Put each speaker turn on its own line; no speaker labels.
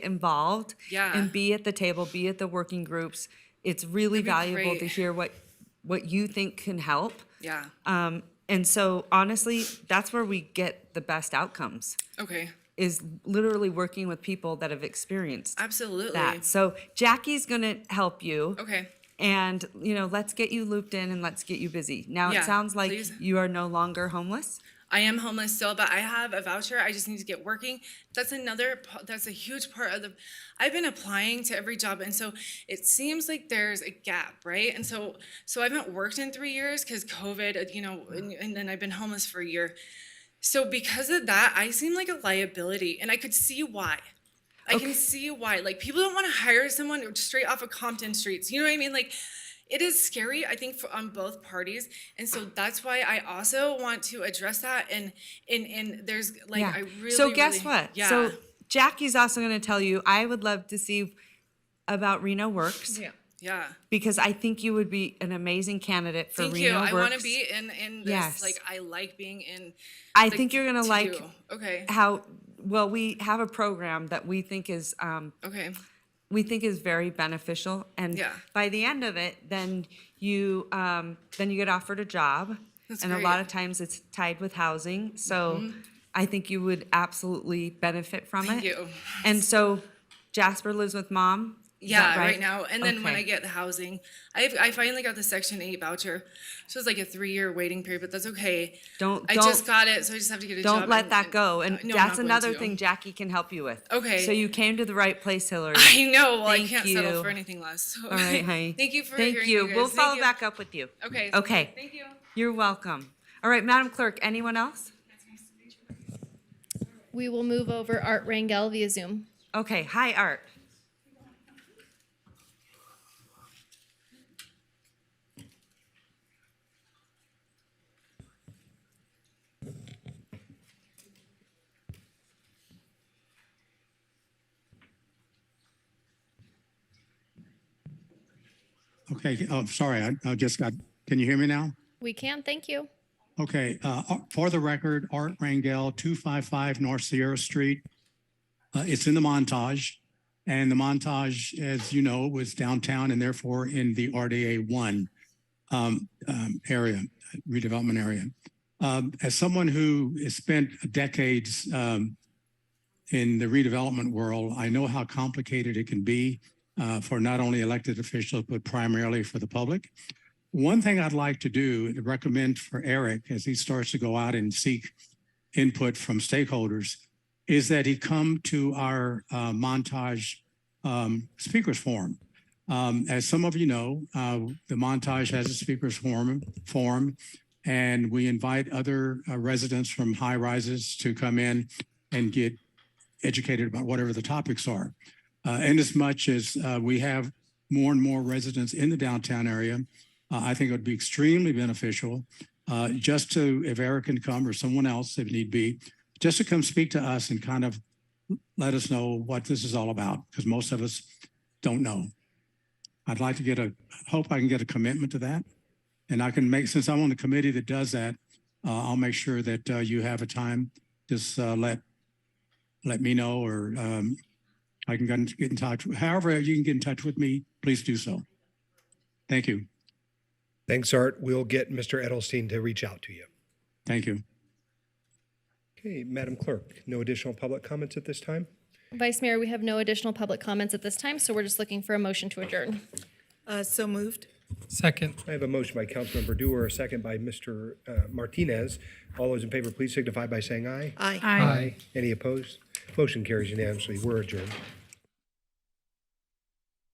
involved
Yeah.
and be at the table, be at the working groups. It's really
That'd be
valuable to
great.
hear what what you think can help.
Yeah.
Um, and so honestly, that's where we get the best outcomes
Okay.
is literally working with people that have experienced
Absolutely.
that. So Jackie's gonna help you.
Okay.
And you know, let's get you looped in and let's get you busy. Now
Yeah,
it sounds like
please.
you are no longer homeless.
I am homeless still, but I have a voucher. I just need to get working. That's another. p- That's a huge part of the. I've been applying to every job, and so it seems like there's a gap, right? And so, so I haven't worked in three years because COVID, uh, you know, and, and then I've been homeless for a year. So because of that, I seem like a liability, and I could see why. I can see why. Like people don't want to hire someone straight off of Compton streets. You know what I mean? Like it is scary, I think, for, on both parties. And so that's why I also want to address that. And and and there's like I really
so guess
really-
what?
Yeah.
So Jackie's also going to tell you. I would love to see about Reno Works
yeah.
because I think you would be an amazing candidate for
Thank
Reno
you.
Works.
I want to be in in this.
Yes.
Like I like being in.
I
the-
think you're going to like
do. Okay.
how well we have a program that we think is um,
Okay.
we think is very beneficial, and
Yeah.
by the end of it, then you um, then you get offered a job,
That's
and a lot
great. Mm-hmm.
of times it's tied with housing. So I think you would absolutely benefit from
Thank
it.
you.
And so Jasper lives with mom? is
Yeah,
that
right? now. And then when I
Okay.
get the housing, I I finally got the Section Eight voucher. So it's like a three year waiting period, but that's okay.
Don't,
I just
don't,
got it, so I just have to get a job.
don't let
and-
that
and-
go. And
No, I'm not
that's
going
another
to.
thing Jackie can help you with.
Okay.
So you came to the right place, Hillary.
I know. Well,
Thank
I can't settle
you.
for anything less. So.
All right, honey.
Thank you for
Thank
hearing
you.
me,
We'll
guys. Thank
follow
you.
back up with you.
Okay.
Okay.
Thank you.
You're welcome. All right, Madam Clerk, anyone else?
We will move over Art Rangel via Zoom.
Okay, hi, Art.
Okay, oh, sorry, I, I just got, can you hear me now?
We can, thank you.
Okay, uh, Ar- for the record, Art Rangel, 255 North Sierra Street. Uh, It's in the montage, and the montage, as you know, was downtown and therefore in the RDA 1 um, um, area, redevelopment area. Um, As someone who has spent decades um, in the redevelopment world, I know how complicated it can be uh, for not only elected officials, but primarily for the public. One thing I'd like to do and recommend for Eric as he starts to go out and seek input from stakeholders is that he come to our uh, Montage um, Speakers Forum. Um, as some of you know, uh, the Montage has a speakers forum, forum and we invite other uh, residents from high rises to come in and get educated about whatever the topics are. Uh, and as much as uh, we have more and more residents in the downtown area, uh, I think it would be extremely beneficial uh, just to, if Eric can come or someone else if need be, just to come speak to us and kind of let us know what this is all about, because most of us don't know. I'd like to get a, hope I can get a commitment to that. And I can make, since I'm on the committee that does that, uh, I'll make sure that uh, you have a time, just uh, let, let me know or um, I can get in- get in touch. However, you can get in touch with me, please do so. Thank you.
Thanks, Art. We'll get Mr. Edelstein to reach out to you.
Thank you.
Okay, Madam Clerk, no additional public comments at this time?
Vice Mayor, we have no additional public comments at this time, so we're just looking for a motion to adjourn.
Uh, so moved.
Second.
I have a motion by Councilmember Dewar, a second by Mr. uh, Martinez. All those in favor, please signify by saying aye.
Aye.
Aye. Any opposed? Motion carries unanimously. We're adjourned.